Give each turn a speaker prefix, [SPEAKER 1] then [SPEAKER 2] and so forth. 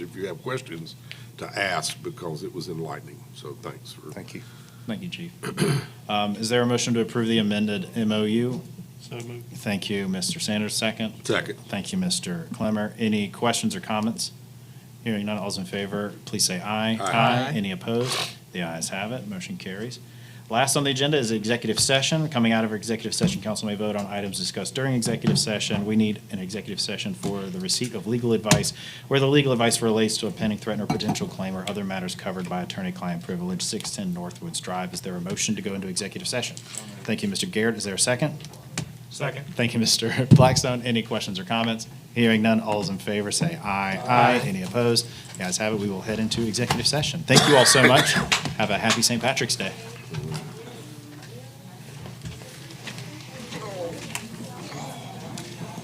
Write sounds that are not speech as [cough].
[SPEAKER 1] you have questions, to ask because it was enlightening. So thanks for.
[SPEAKER 2] Thank you.
[SPEAKER 3] Thank you, Chief. Um, Is there a motion to approve the amended MOU?
[SPEAKER 4] So moved.
[SPEAKER 3] Thank you, Mr. Sanders, second.
[SPEAKER 1] Second.
[SPEAKER 3] Thank you, Mr. Clemmer. Any questions or comments? Hearing none, all's in favor, please say aye.
[SPEAKER 1] Aye.
[SPEAKER 3] Any opposed? The ayes have it, motion carries. Last on the agenda is executive session. Coming out of executive session, council may vote on items discussed during executive session. We need an executive session for the receipt of legal advice, where the legal advice relates to a pending threat or potential claim or other matters covered by attorney-client privilege, 610 Northwoods Drive. Is there a motion to go into executive session? Thank you, Mr. Garrett. Is there a second?
[SPEAKER 4] Second.
[SPEAKER 3] Thank you, Mr. [laughs] Blackstone. Any questions or comments? Hearing none, all is in favor, say aye. Aye. Any opposed? The ayes have it, we will head into executive session. Thank you all so much. Have a happy St. Patrick's Day.